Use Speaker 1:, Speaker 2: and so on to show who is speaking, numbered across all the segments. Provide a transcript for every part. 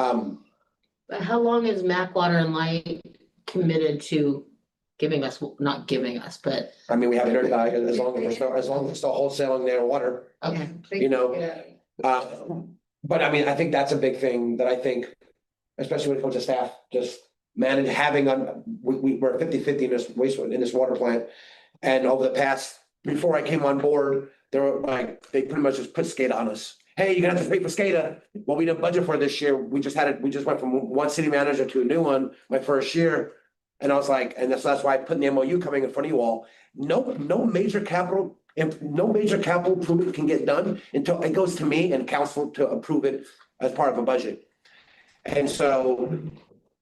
Speaker 1: Um,
Speaker 2: But how long is Mac Water and Light committed to giving us, not giving us, but,
Speaker 1: I mean, we haven't heard, uh, as long as, there's no- as long as it's still wholesaling their water,
Speaker 2: okay,
Speaker 1: you know? Uh, but I mean, I think that's a big thing that I think, especially when it comes to staff, just manage having, um, we, we, we're 50 in this wastewater, in this water plant. And over the past, before I came on board, they were like, they pretty much just put SCADA on us. Hey, you're gonna have to pay for SCADA. Well, we didn't budget for it this year. We just had it, we just went from one city manager to a new one, my first year. And I was like, and that's, that's why I put in the MOU coming in front of you all. No, no major capital, if no major capital improvement can get done until it goes to me and council to approve it as part of a budget. And so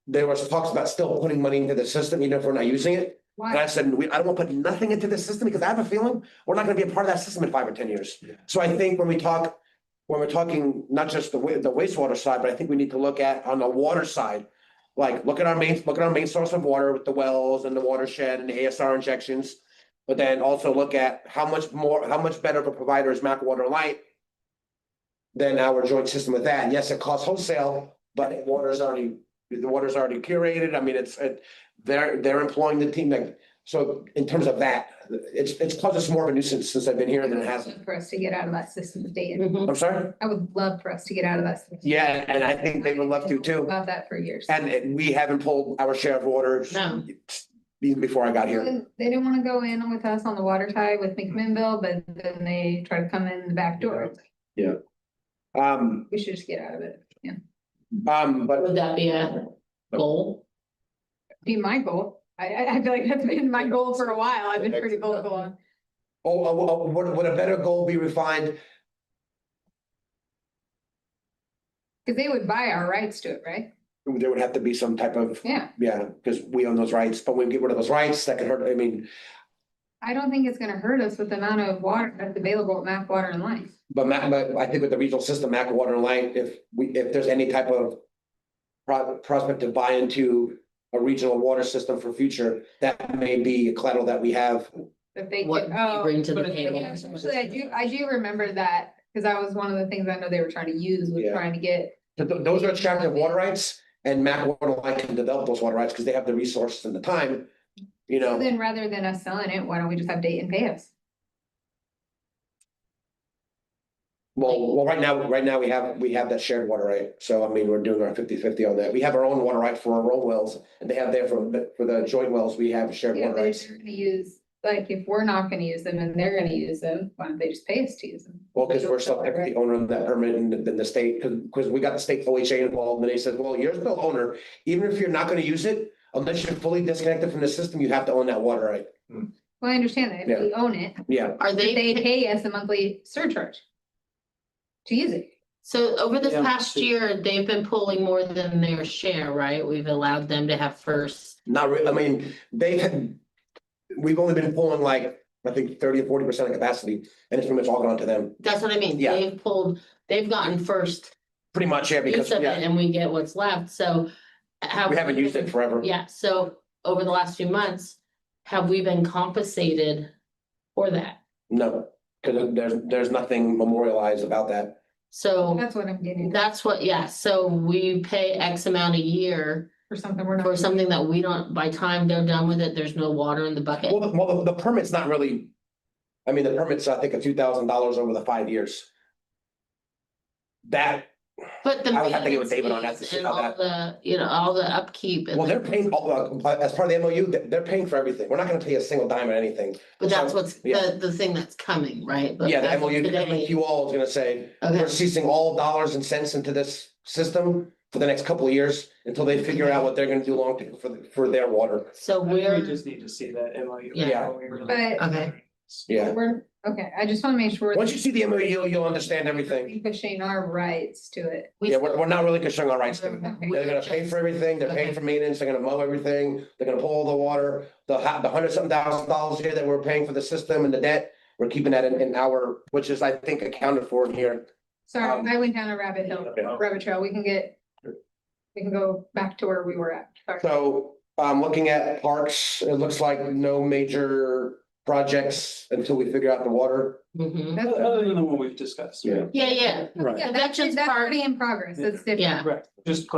Speaker 1: there was talks about still putting money into the system, even if we're not using it. And I said, we, I don't want to put nothing into the system because I have a feeling we're not gonna be a part of that system in five or ten years. So I think when we talk, when we're talking not just the wa- the wastewater side, but I think we need to look at on the water side. Like, look at our main, look at our main source of water with the wells and the watershed and the ASR injections. But then also look at how much more, how much better of a provider is Mac Water Light. Than our joint system with that. And Yes, it costs wholesale, but the water's already, the water's already curated. I mean, it's, it, they're, they're employing the team like. So in terms of that, it's, it's caused us more of a nuisance since I've been here than it hasn't.
Speaker 3: For us to get out of that system of data.
Speaker 2: mhm,
Speaker 1: I'm sorry?
Speaker 3: I would love for us to get out of that. system.
Speaker 1: Yeah, and I think they would love to too.
Speaker 3: About that for years.
Speaker 1: And and we haven't pulled our share of orders
Speaker 2: no,
Speaker 1: even before I got here.
Speaker 3: They didn't want to go in with us on the water tie with McMinnville, but then they try to come in the back door. It's like,
Speaker 1: Um,
Speaker 3: We should just get out of it.
Speaker 1: um, but
Speaker 2: would that be a goal?
Speaker 3: Be my goal. I, I, I feel like that's been my goal for a while. I've been pretty vocal on.
Speaker 1: Oh, oh, oh, would, would a better goal be refined?
Speaker 3: Cause they would buy our rights to it, right?
Speaker 1: There would have to be some type of,
Speaker 3: Yeah.
Speaker 1: yeah, because we own those rights, but when we get rid of those rights, that could hurt, I mean,
Speaker 3: I don't think it's gonna hurt us with the amount of water that's available at Mac Water and Light.
Speaker 1: but ma- but I think with the regional system, Mac Water and Light, if we, if there's any type of pro- prospect to buy into a regional water system for future, that may be a collateral that we have.
Speaker 3: If they.
Speaker 2: What
Speaker 3: could-
Speaker 2: you
Speaker 3: oh,
Speaker 2: bring to the
Speaker 3: but it's-
Speaker 2: table.
Speaker 3: yeah, Actually, I do, I do remember that, cause that was one of the things I know they were trying to use, was
Speaker 1: Yeah.
Speaker 3: trying to get,
Speaker 1: Th- th- Those are attractive water rights and Mac Water Line can develop those water rights because they have the resources and the time. You know,
Speaker 3: then rather than us selling it, why don't we just have Dayton pay us?
Speaker 1: well, well, right now, right now we have, we have that shared water right. So I mean, we're doing our 50-50 on that. We have our own water right for our own wells and they have there for, for the joint wells, we have shared
Speaker 3: Yeah,
Speaker 1: water
Speaker 3: but if
Speaker 1: rights.
Speaker 3: they're gonna use, like, if we're not gonna use them and they're gonna use them, why don't they just pay us to use them?
Speaker 1: Well, because we're still the owner of that permit and then the state, because, we got the state OHA involved and they said, well, you're still owner. Even if you're not going to use it, unless you're fully disconnected from the system, you have to own that water right.
Speaker 3: Well, I understand that, if we own it,
Speaker 1: Yeah,
Speaker 2: Are
Speaker 3: but they
Speaker 2: they,
Speaker 3: pay us a monthly surcharge. To use it,
Speaker 2: so over this
Speaker 1: Yeah.
Speaker 2: past year, they've been pulling more than their share, right? We've allowed them to have first.
Speaker 1: not really, I mean, they had, we've only been pulling like, I think thirty or forty percent of capacity and it's pretty much all gone to them.
Speaker 2: That's what I mean.
Speaker 1: Yeah.
Speaker 2: They've pulled, they've gotten first
Speaker 1: Pretty much, yeah, because
Speaker 2: piece of it
Speaker 1: yeah,
Speaker 2: and we get what's left, so. uh, have
Speaker 1: we haven't used it forever.
Speaker 2: Yeah, so over the last few months, have we been compensated for that?
Speaker 1: No, because there's, there's nothing memorialized about that.
Speaker 2: So
Speaker 3: that's what I'm getting, at,
Speaker 2: that's what, yeah, so we pay X amount a year
Speaker 3: for something we're not.
Speaker 2: for something that we don't, by time they're done with it, there's no water in the bucket.
Speaker 1: Well, the, well, the- the permit's not really, I mean, the permit's, I think, a few thousand dollars over the five years. That,
Speaker 2: But the.
Speaker 1: I would have to get with David on that to
Speaker 2: maintenance
Speaker 1: see
Speaker 2: And
Speaker 1: how
Speaker 2: all
Speaker 1: that-
Speaker 2: the, you know, all the upkeep
Speaker 1: well,
Speaker 2: and,
Speaker 1: they're paying, all- uh, as part of the MOU, they're, they're paying for everything. We're not gonna pay a single dime or anything.
Speaker 2: but that's what's,
Speaker 1: yeah.
Speaker 2: the, the thing that's coming, right? But
Speaker 1: Yeah, the
Speaker 2: as of
Speaker 1: MOU,
Speaker 2: today-
Speaker 1: you all is gonna say,
Speaker 2: Okay,
Speaker 1: We're ceasing all dollars and cents into this system for the next couple of years until they figure out what they're gonna do long term for, the- for their water.
Speaker 2: so
Speaker 4: I think We
Speaker 2: we're,
Speaker 4: just need to see that MOU.
Speaker 2: Yeah.
Speaker 3: But-
Speaker 2: Okay.
Speaker 1: Uh, Yeah.
Speaker 3: We're, okay, I just wanna make sure.
Speaker 1: Once you see the MOU, you'll understand everything.
Speaker 3: we're Pushing our rights to it.
Speaker 2: we
Speaker 1: Yeah, we're, we're not really concerned our rights to it.
Speaker 2: Okay.
Speaker 1: They're gonna pay for everything, they're paying for maintenance, they're gonna mow everything, they're gonna pull the water, the hu- the hundred something thousand dollars here that we're paying for the system and the debt. We're keeping that in, in our, which is, I think, accounted for in here. Um,
Speaker 3: Sorry, I went down a rabbit hole, rabbit trail, we can get, we can go back to where we were at. Sorry.
Speaker 1: So, um, looking at parks, it looks like no major projects until we figure out the water.
Speaker 2: Mhm.
Speaker 3: That's-
Speaker 4: Other than the one we've discussed.
Speaker 1: Yeah.
Speaker 2: Yeah, yeah.
Speaker 4: Right.
Speaker 3: Yeah, that's,
Speaker 2: Veterans
Speaker 3: that's
Speaker 2: Park-
Speaker 3: already in progress, it's different.
Speaker 2: Yeah.
Speaker 4: Right, just